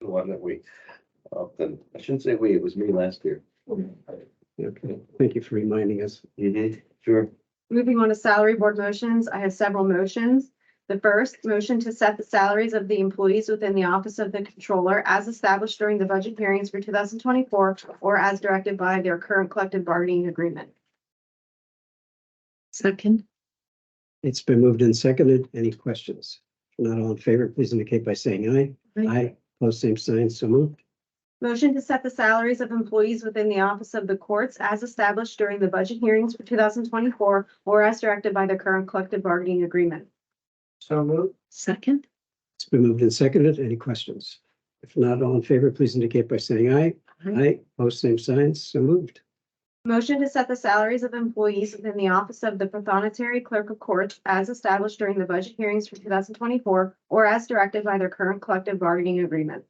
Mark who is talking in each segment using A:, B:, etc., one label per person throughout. A: one that we often, I shouldn't say we, it was me last year.
B: Okay, thank you for reminding us.
A: Mm-hmm. Sure.
C: Moving on to salary board motions, I have several motions. The first, motion to set the salaries of the employees within the Office of the Controller as established during the budget hearings for two thousand twenty-four or as directed by their current collective bargaining agreement.
D: Second,
B: It's been moved and seconded. Any questions? If Not all in favor, please indicate by saying aye.
D: Aye.
B: Aye, Post same sign, so moved.
C: Motion to set the salaries of employees within the Office of the Courts as established during the budget hearings for two thousand twenty-four or as directed by their current collective bargaining agreement.
B: So moved.
D: second,
B: It's been moved and seconded. Any questions? If not all in favor, please indicate by saying aye.
D: Aye.
B: Aye, Post same sign, so moved.
C: Motion to set the salaries of employees within the office of the Pathonetary Clerk of Court as established during the budget hearings for two thousand twenty-four or as directed by their current collective bargaining agreement.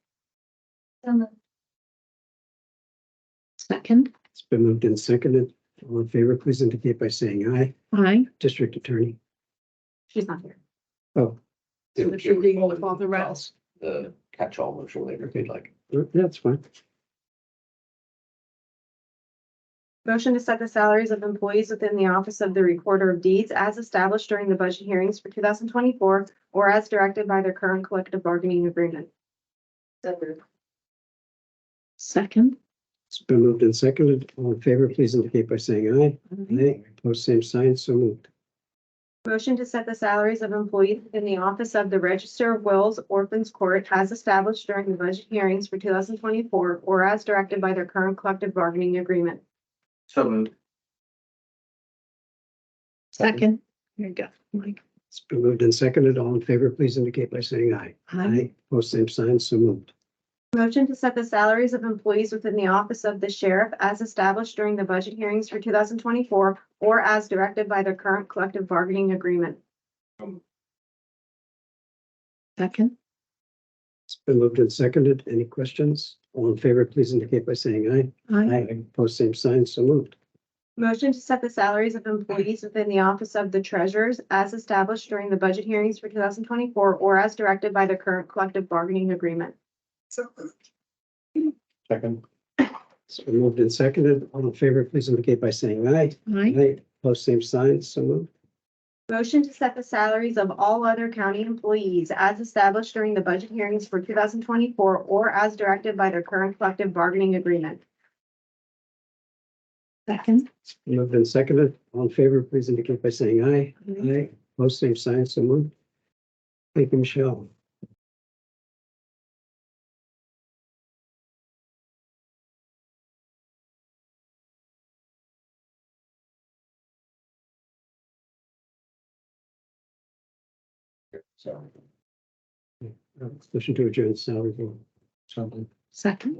D: second,
B: It's been moved and seconded. All in favor, please indicate by saying aye.
D: aye.
B: District Attorney.
C: She's not here.
B: Oh,
D: So that you're reading with all the rest.
A: The catch-all motion later, if you'd like.
B: that's fine.
C: Motion to set the salaries of employees within the office of the Recorder of Deeds as established during the budget hearings for two thousand twenty-four or as directed by their current collective bargaining agreement.
D: Second,
B: It's been moved and seconded. All in favor, please indicate by saying aye.
C: Mm-hmm.
D: aye.
B: Aye, Post same sign, so moved.
C: Motion to set the salaries of employees in the office of the Register of Wills Orphans Court as established during the budget hearings for two thousand twenty-four or as directed by their current collective bargaining agreement.
A: So moved.
D: second. There you go, Mike.
B: It's been moved and seconded. All in favor, please indicate by saying aye.
D: Aye.
B: Post same sign, so moved.
C: Motion to set the salaries of employees within the office of the sheriff as established during the budget hearings for two thousand twenty-four or as directed by their current collective bargaining agreement.
D: Second,
B: It's been moved and seconded. Any questions? All in favor, please indicate by saying aye.
D: aye.
B: Post same sign, so moved.
C: Motion to set the salaries of employees within the office of the treasurers as established during the budget hearings for two thousand twenty-four or as directed by their current collective bargaining agreement.
A: Second.
B: It's been moved and seconded. All in favor, please indicate by saying aye.
D: Aye.
B: Post same sign, so moved.
C: Motion to set the salaries of all other county employees as established during the budget hearings for two thousand twenty-four or as directed by their current collective bargaining agreement.
D: Second,
B: It's been moved and seconded. All in favor, please indicate by saying aye.
D: aye.
B: Aye. Post same sign, so moved. Thank you, Michelle.
A: So.
B: Uh, Motion to adjourn salary board. Something.
D: second,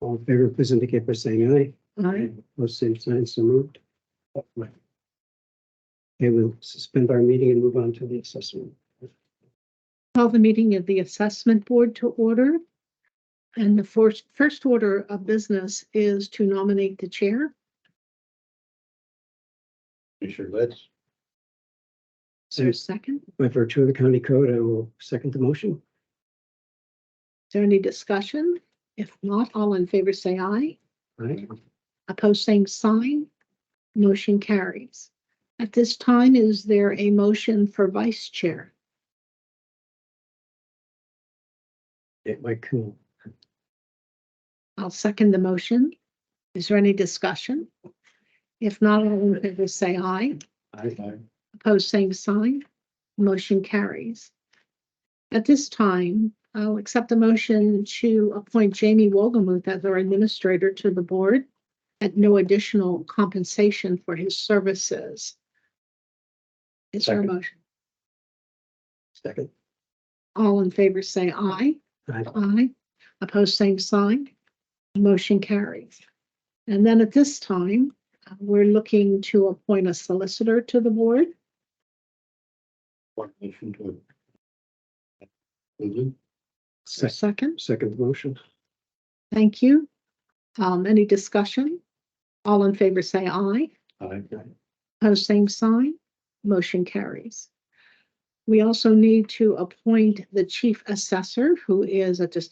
B: All in favor, please indicate by saying aye.
D: aye.
B: Post same sign, so moved. Okay, we'll suspend our meeting and move on to the assessment.
D: Call the meeting of the assessment board to order. And the first, first order of business is to nominate the chair.
A: You sure let's.
D: Is there a second? Is
B: By virtue of the county code, I will second the motion.
D: there any discussion? If not, all in favor say aye.
B: Aye.
D: Opposed, same sign. Motion carries. At this time, is there a motion for vice chair?
B: It might cool.
D: I'll second the motion. Is there any discussion? If not, all in favor say aye.
B: Aye.
D: Opposed, same sign. Motion carries. At this time, I'll accept the motion to appoint Jamie Wogomuth as our administrator to the board at no additional compensation for his services. Is there a
B: Second.
D: motion?
B: Second.
D: All in favor, say aye.
B: Aye.
D: Aye. Opposed, same sign. Motion carries. And then at this time, uh, we're looking to appoint a solicitor to the board.
A: What motion to? Move
D: Is there a
B: Sec-
D: Second.
B: Second motion.
D: Thank you. Um, any discussion? All in favor say aye.
A: Aye.
D: Pose same sign. Motion carries. We also need to appoint the chief assessor, who is a distinguished